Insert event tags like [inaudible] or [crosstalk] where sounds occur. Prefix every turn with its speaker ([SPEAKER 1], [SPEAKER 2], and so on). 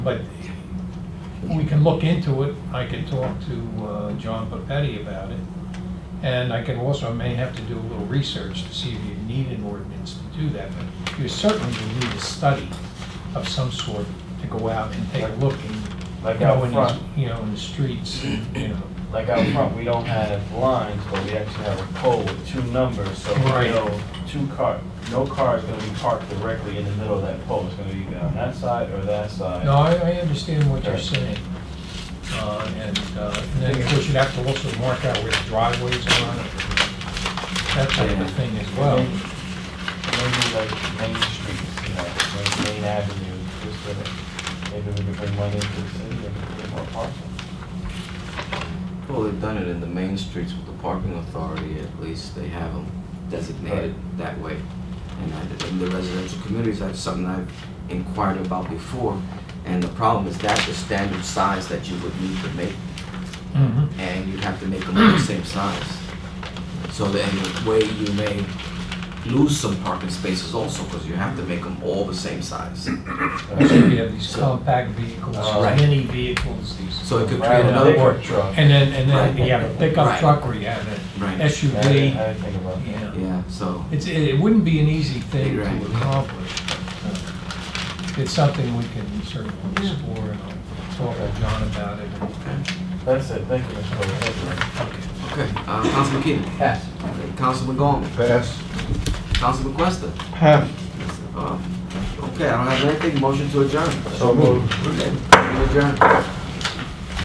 [SPEAKER 1] But we can look into it. I can talk to uh, John Papetti about it. And I can also, I may have to do a little research to see if you need an ordinance to do that. But you certainly will need a study of some sort to go out and take a look and
[SPEAKER 2] Like
[SPEAKER 1] go
[SPEAKER 2] out
[SPEAKER 1] in,
[SPEAKER 2] front.
[SPEAKER 1] you know, in the streets, and, you
[SPEAKER 2] [clears throat]
[SPEAKER 1] know.
[SPEAKER 2] Like out front, we don't have lines, but we actually have a pole with two numbers, so we
[SPEAKER 1] Right.
[SPEAKER 2] know two car, no car is gonna be parked directly in the middle of that pole. It's gonna be either on that side or that side.
[SPEAKER 1] No, I, I understand what you're
[SPEAKER 2] Right.
[SPEAKER 1] saying. Uh, And uh, and then, of course, you'd have to also mark out where the driveways are on it. That type of thing as well.
[SPEAKER 2] Maybe maybe like main streets, you know, main, main avenue, just so that maybe we could bring money into the city and get more parking.
[SPEAKER 3] Well, they've done it in the main streets with the parking authority, at least they have them designated that way. And I- and the residential communities, that's something I've inquired about before, and the problem is that's the standard size that you would need to make,
[SPEAKER 1] Mhm.
[SPEAKER 3] and you'd have to make them all the same size. So then, the way you may lose some parking spaces also, because you have to make them all the same size.
[SPEAKER 1] So you have these compact vehicles,
[SPEAKER 2] Uh,
[SPEAKER 3] right.
[SPEAKER 1] mini vehicles, these,
[SPEAKER 3] So it could
[SPEAKER 2] Right,
[SPEAKER 3] create
[SPEAKER 2] and
[SPEAKER 3] another,
[SPEAKER 2] a
[SPEAKER 3] wor-
[SPEAKER 2] big truck.
[SPEAKER 1] and then, and then you have a pickup
[SPEAKER 3] Right.
[SPEAKER 1] truck or you have an
[SPEAKER 3] Right.
[SPEAKER 2] Yeah, I didn't- I
[SPEAKER 1] SUV.
[SPEAKER 2] didn't think about that.
[SPEAKER 1] Yeah.
[SPEAKER 3] yeah, so,
[SPEAKER 1] It's, it it wouldn't be an easy thing
[SPEAKER 3] Right.
[SPEAKER 1] to accomplish. but, uh, It's something we can certainly explore and I'll talk to John about it.
[SPEAKER 2] That's it, thank you, Mr. President. Thank you.
[SPEAKER 1] Okay.
[SPEAKER 3] okay, uh, Councilman Keenan.
[SPEAKER 2] Pass.
[SPEAKER 3] Councilman Gollman.
[SPEAKER 4] Pass.
[SPEAKER 3] Councilman Questa.
[SPEAKER 4] Pass.
[SPEAKER 3] Uh, Okay, I don't have anything, motion to adjourn.
[SPEAKER 4] So moved.
[SPEAKER 3] Okay, we adjourn.